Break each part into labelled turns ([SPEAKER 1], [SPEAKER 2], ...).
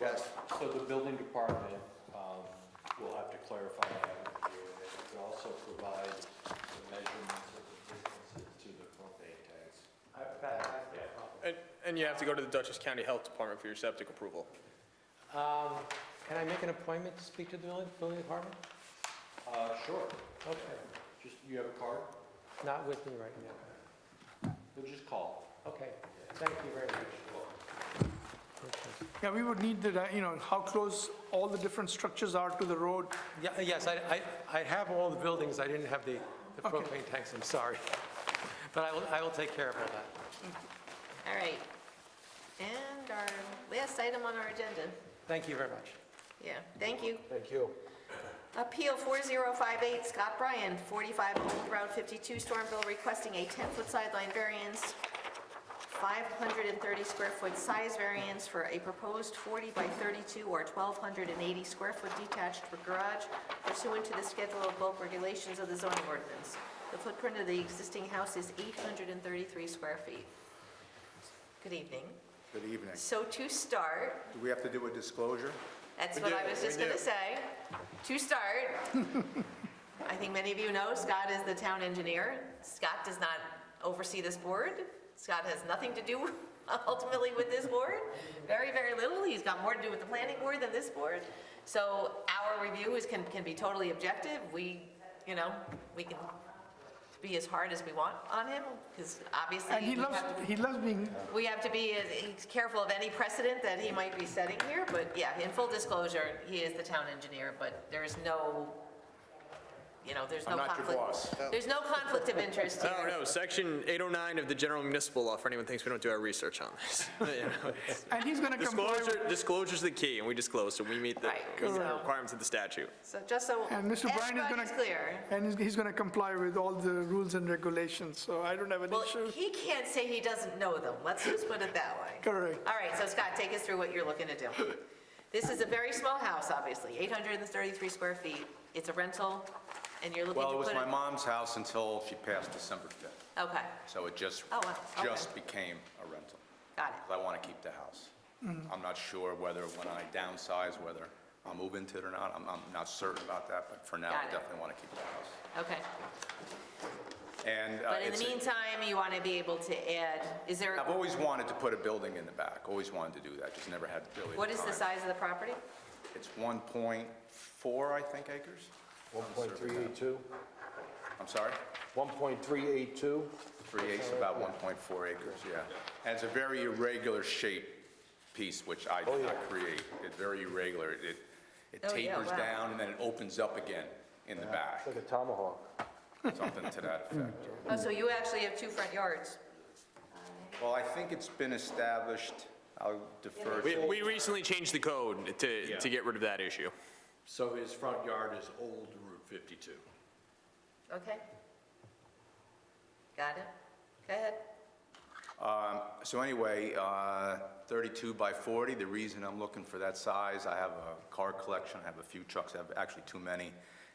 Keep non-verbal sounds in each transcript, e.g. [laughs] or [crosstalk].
[SPEAKER 1] Yes.
[SPEAKER 2] So the building department um, will have to clarify that with you, and it could also provide the measurements of the distances to the propane tanks.
[SPEAKER 3] And, and you have to go to the Dutchess County Health Department for your septic approval.
[SPEAKER 4] Um, Can I make an appointment to speak to the building- building department?
[SPEAKER 2] Uh, Sure,
[SPEAKER 4] Okay.
[SPEAKER 2] just, you have a card?
[SPEAKER 4] Not with me right now.
[SPEAKER 2] We'll just call.
[SPEAKER 4] Okay, thank you very much. Okay.
[SPEAKER 5] Yeah, we would need the, you know, how close all the different structures are to the road.
[SPEAKER 4] Yeah, Yes, I, I- I have all the buildings, I didn't have the the
[SPEAKER 5] Okay.
[SPEAKER 4] propane tanks, I'm sorry. [laughs] But I will, I will take care of all that.
[SPEAKER 6] All right. And our last item on our agenda.
[SPEAKER 4] Thank you very much.
[SPEAKER 6] Yeah, thank you.
[SPEAKER 1] Thank you.
[SPEAKER 6] Appeal 4058, Scott Bryan, 45 Old Route 52, Stormville, requesting a 10-foot sideline variance, 530 square foot size variance for a proposed 40 by 32 or 1,280 square foot detached garage pursuant to the schedule of bulk regulations of the zoning ordinance. The footprint of the existing house is 833 square feet. Good evening.
[SPEAKER 1] Good evening.
[SPEAKER 6] So to start,
[SPEAKER 1] Do we have to do a disclosure?
[SPEAKER 6] that's
[SPEAKER 3] We
[SPEAKER 6] what
[SPEAKER 3] do,
[SPEAKER 6] I was just
[SPEAKER 3] we
[SPEAKER 6] going to
[SPEAKER 3] do.
[SPEAKER 6] say. To start, I think many of you know Scott is the town engineer. Scott does not oversee this board. Scott has nothing to do [laughs] ultimately with this board, very, very little. He's got more to do with the planning board than this board. So our review is, can, can be totally objective. We, you know, we can be as hard as we want on him, because obviously.
[SPEAKER 5] And he
[SPEAKER 6] we
[SPEAKER 5] loves,
[SPEAKER 6] have to-
[SPEAKER 5] he loves being,
[SPEAKER 6] we have to be as careful of any precedent that he might be setting here, but yeah, in full disclosure, he is the town engineer, but there is no, you know, there's no
[SPEAKER 3] I'm
[SPEAKER 6] conflict.
[SPEAKER 3] not your boss.
[SPEAKER 6] There's no conflict of interest
[SPEAKER 3] No,
[SPEAKER 6] here.
[SPEAKER 3] no, section 809 of the general municipal law, for anyone who thinks we don't do our research on this. [laughs] You know, it's-
[SPEAKER 5] and he's going to comply. with-
[SPEAKER 3] Disclosure, disclosure's the key, and we disclose, so we meet the
[SPEAKER 6] Right,
[SPEAKER 3] the
[SPEAKER 6] so-
[SPEAKER 3] requirements of the statute.
[SPEAKER 6] So just so
[SPEAKER 5] And Mr. Bryan is going
[SPEAKER 6] everybody's
[SPEAKER 5] to.
[SPEAKER 6] clear.
[SPEAKER 5] And he's- he's going to comply with all the rules and regulations, so I don't have an
[SPEAKER 6] Well,
[SPEAKER 5] issue.
[SPEAKER 6] he can't say he doesn't know them, let's just put it that way.
[SPEAKER 5] Correct.
[SPEAKER 6] All right, so Scott, take us through what you're looking to do. This is a very small house, obviously, 833 square feet. It's a rental, and you're looking to
[SPEAKER 7] Well,
[SPEAKER 6] put
[SPEAKER 7] it
[SPEAKER 6] it...
[SPEAKER 7] was my mom's house until she passed December 5th,
[SPEAKER 6] Okay,
[SPEAKER 7] so it just,
[SPEAKER 6] Oh, wow, okay.
[SPEAKER 7] just became a rental.
[SPEAKER 6] got it.
[SPEAKER 7] 'Cause I want to keep the house.
[SPEAKER 6] Mm.
[SPEAKER 7] I'm not sure whether when I downsize, whether I'll move into it or not. I'm, I'm not certain about that, but for now,
[SPEAKER 6] Got
[SPEAKER 7] I
[SPEAKER 6] it.
[SPEAKER 7] definitely want to keep the house.
[SPEAKER 6] Okay,
[SPEAKER 7] And uh,
[SPEAKER 6] but in the
[SPEAKER 7] it's, a-
[SPEAKER 6] meantime, you want to be able to add, is there,
[SPEAKER 7] I've always wanted to put a building in the back, always wanted to do that, just never had really the
[SPEAKER 6] what is the
[SPEAKER 7] time.
[SPEAKER 6] size of the property?
[SPEAKER 7] It's 1.4, I think, acres?
[SPEAKER 1] 1.382?
[SPEAKER 7] I'm sorry?
[SPEAKER 1] 1.382?
[SPEAKER 7] Three eighths, about 1.4 acres, yeah. And it's a very irregular shaped piece, which I did not create. It's very irregular. It it
[SPEAKER 6] Oh, yeah,
[SPEAKER 7] tapers
[SPEAKER 6] wow.
[SPEAKER 7] down and then it opens up again in the back,
[SPEAKER 6] [laughs]
[SPEAKER 1] Like a tomahawk.
[SPEAKER 7] something to that effect.
[SPEAKER 6] Oh, so you actually have two front yards.
[SPEAKER 7] Well, I think it's been established, I'll defer
[SPEAKER 3] We,
[SPEAKER 7] to,
[SPEAKER 3] we recently changed the code to, to get rid of that issue.
[SPEAKER 2] So his front yard is old Route 52.
[SPEAKER 6] Okay. Got it? Go ahead.
[SPEAKER 7] so anyway, uh, 32 by 40, the reason I'm looking for that size, I have a car collection, I have a few trucks, I have actually too many,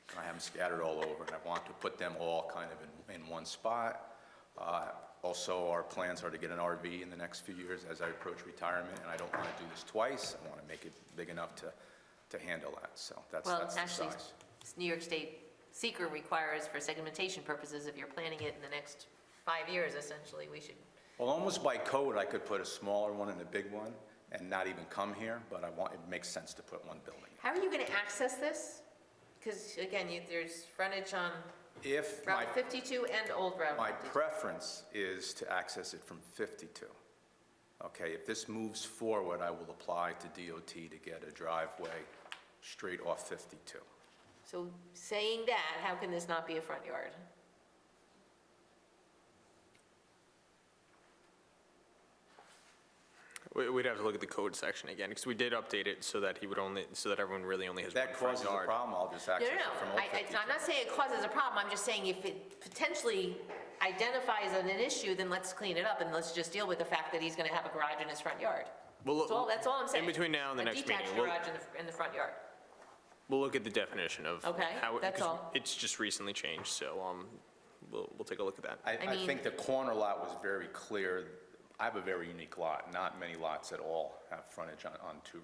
[SPEAKER 7] and I have them scattered all over, and I want to put them all kind of in, in one spot. Uh, Also, our plans are to get an RV in the next few years as I approach retirement, and I don't want to do this twice. I want to make it big enough to, to handle that, so that's,
[SPEAKER 6] Well,
[SPEAKER 7] that's the
[SPEAKER 6] actually,
[SPEAKER 7] size.
[SPEAKER 6] s- New York State seeker requires for segmentation purposes, if you're planning it in the next five years, essentially, we should,
[SPEAKER 7] Well, almost by code, I could put a smaller one and a big one and not even come here, but I want, it makes sense to put one building.
[SPEAKER 6] how are you going to access this? Because again, you, there's frontage on
[SPEAKER 7] If my,
[SPEAKER 6] Route 52 and Old Route
[SPEAKER 7] my
[SPEAKER 6] 52.
[SPEAKER 7] preference is to access it from 52. Okay, if this moves forward, I will apply to DOT to get a driveway straight off 52.
[SPEAKER 6] So saying that, how can this not be a front yard?
[SPEAKER 3] We, we'd have to look at the code section again, because we did update it so that he would only, so that everyone really only has
[SPEAKER 7] If
[SPEAKER 3] one
[SPEAKER 7] that
[SPEAKER 3] front
[SPEAKER 7] causes a
[SPEAKER 3] yard.
[SPEAKER 7] problem, I'll just
[SPEAKER 6] No,
[SPEAKER 7] access
[SPEAKER 6] no,
[SPEAKER 7] it from
[SPEAKER 6] no,
[SPEAKER 7] off
[SPEAKER 6] I, I-
[SPEAKER 7] 52.
[SPEAKER 6] I'm not saying it causes a problem, I'm just saying if it potentially identifies an an issue, then let's clean it up and let's just deal with the fact that he's gonna have a garage in his front yard.
[SPEAKER 3] We'll
[SPEAKER 6] That's all,
[SPEAKER 3] look,
[SPEAKER 6] that's all I'm saying.
[SPEAKER 3] between now and the
[SPEAKER 6] A
[SPEAKER 3] next meeting,
[SPEAKER 6] detached
[SPEAKER 3] we'll-
[SPEAKER 6] garage in the, in the front yard.
[SPEAKER 3] we'll look at the definition of.
[SPEAKER 6] Okay,
[SPEAKER 3] how it-
[SPEAKER 6] that's
[SPEAKER 3] 'cause
[SPEAKER 6] all.
[SPEAKER 3] It's just recently changed, so, um, we'll, we'll take a look at that.
[SPEAKER 7] I,
[SPEAKER 6] I
[SPEAKER 7] I
[SPEAKER 6] mean-
[SPEAKER 7] think the corner lot was very clear. I have a very unique lot. Not many lots at all have frontage on, on two